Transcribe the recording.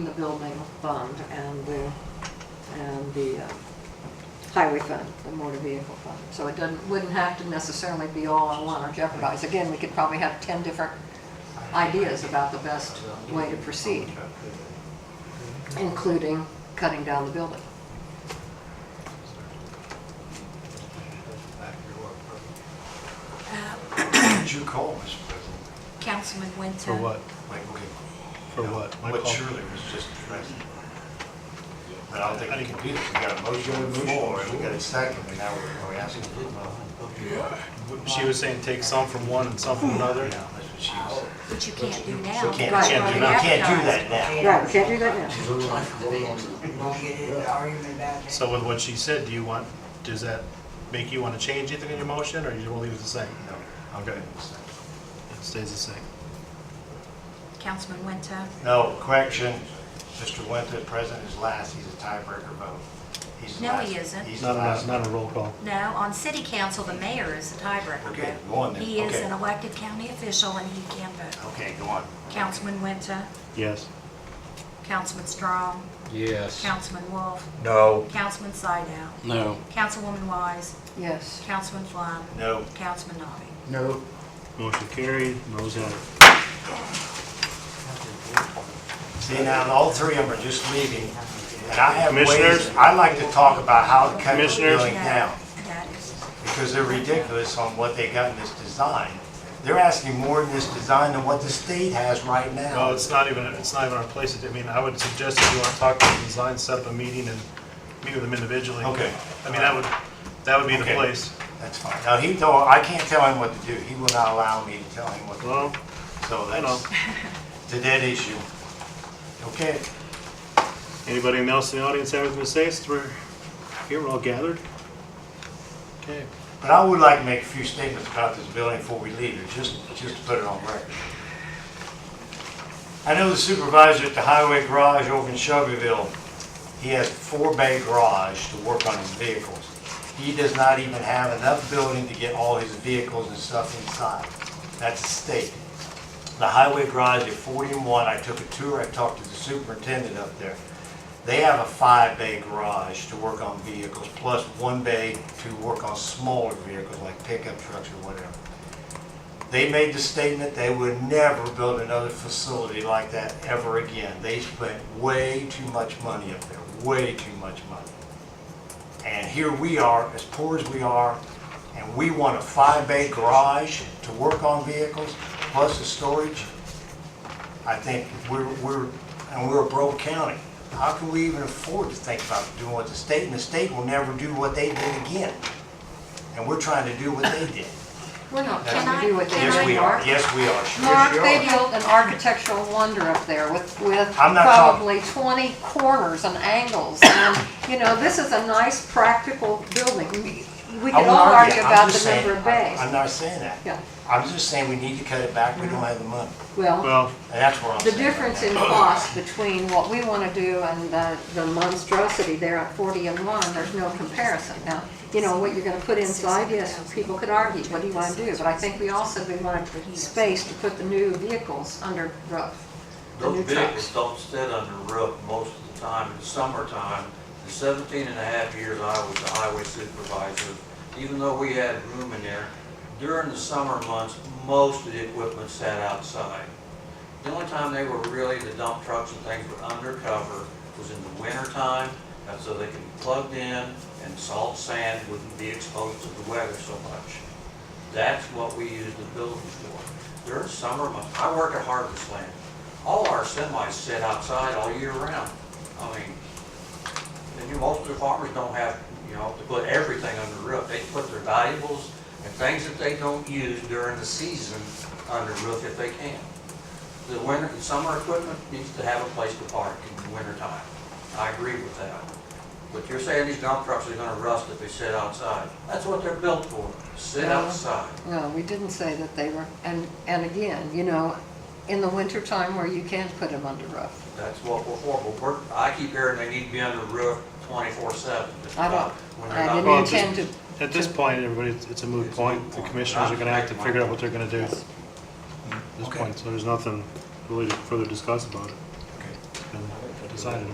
the building fund and the, and the uh, highway fund, the motor vehicle fund. So it doesn't, wouldn't have to necessarily be all in one or jeopardize. Again, we could probably have 10 different ideas about the best way to proceed, including cutting down the building. Did you call, Mr. President? Uh, Councilman Winter. For what? Like, okay. For what? My What call? surely was just addressed. But I don't think we can do this. We got a motion on the floor, and we got a second, and now we're, we're asking. She was saying take some from one and some from another. Yeah, that's what she was saying. Which you can't do now. We can't, Right. can't do, we can't do that now. Right, we can't do that now. Don't get into an argument about that. So with what she said, do you want, does that make you want to change anything in your motion, or you just want to leave it the same? No. Okay. It stays the same. Councilman Winter. No, correction, Mr. Winter, President is last, he's a tiebreaker vote. He's the No, he last. isn't. He's the Not last. a, not a roll call. No, on city council, the mayor is the tiebreaker. Okay, go on then. He is Okay. an elected county official and he can vote. Okay, go on. Councilman Winter, Yes. Councilman Strong, Yes. Councilman Wolf, No. Councilman Sidell, No. Councilwoman Wise, Yes. Councilman Flynn, No, Councilman Nobby. No. Motion carried, those have it. see now, all three of them are just leaving, and I have ways, Commissioners? I like to talk about how to cut the Commissioners? building down. That is, because they're ridiculous on what they got in this design. They're asking more in this design than what the state has right No, now. it's not even, it's not even our place. to do- I mean, I would suggest if you want to talk to the design, set up a meeting and meet with them individually. Okay. I mean, that would, that would be the Okay. place. That's fine. Now, he told, I can't tell him what to do. He will not allow me to tell him what to do. Well, So I know. that's, it's a dead issue. Okay, Anybody else in the audience have anything to say? Since We're here, we're all gathered. Okay. but I would like to make a few statements about this building before we leave, it, just, just to put it on record. I know the supervisor at the highway garage over in Shelbyville, he has four bay garage to work on his vehicles. He does not even have enough building to get all his vehicles and stuff inside. That's a state. The highway garage at 40 and 1, I took a tour, I talked to the superintendent up there. They have a five bay garage to work on vehicles, plus one bay to work on smaller vehicles like pickup trucks or whatever. They made the statement they would never build another facility like that ever again. They spent way too much money up there, way too much money. And here we are, as poor as we are, and we want a five-bay garage to work on vehicles, plus the storage. I think we're, we're, and we're a broke county. How can we even afford to think about doing what the state, and the state will never do what they did again. And we're trying to do what they did. We're not Can trying to do what they Yes, we did, are, Mark. yes, we are, sure Mark, as you they are. built an architectural wonder up there with, with I'm not talking- probably 20 corners and angles. And, you know, this is a nice, practical building. We- We I can won't all argue I'm about just the number saying- of bays. I'm not saying that. Yeah. I'm just saying we need to cut it back, we don't have the money. Well, Well, And that's what I'm the saying. right difference in now. cost between what we want to do and the the monstrosity there at 40 and 1, there's no comparison. Now, you know, what you're going to put inside, yes, people could argue, what do you want to do? But I think we also, we want space to put the new vehicles under roof, the new Those vehicles trucks. don't sit under roof most of the time in the summertime. The 17 and a half years I was the highway supervisor, even though we had room in there, during the summer months, most of the equipment sat outside. The only time they were really, the dump trucks and things were undercover was in the winter time, and so they could be plugged in and salt sand wouldn't be exposed to the weather so much. That's what we use the buildings for. During summer months, I work at Harvest Land. All our semis sit outside all year round. I mean, and you, most of the farmers don't have, you know, to put everything under the roof. They put their valuables and things that they don't use during the season under roof if they can. The winter, the summer equipment needs to have a place to park in the winter time. I agree with that. But you're saying these dump trucks are gonna rust if they sit outside. That's what they're built for, sit Yeah. outside. No, we didn't say that they were, and, and again, you know, in the wintertime where you can put them under roof. That's what we're for, but we're, I keep hearing they need to be under the roof twenty-four seven. I don't- I didn't Well, just- intend to, at this point, everybody, it's- it's a moot point. The commissioners are gonna have to figure out what they're gonna do at this Okay. point, so there's nothing really to further discuss about it. Okay. And decided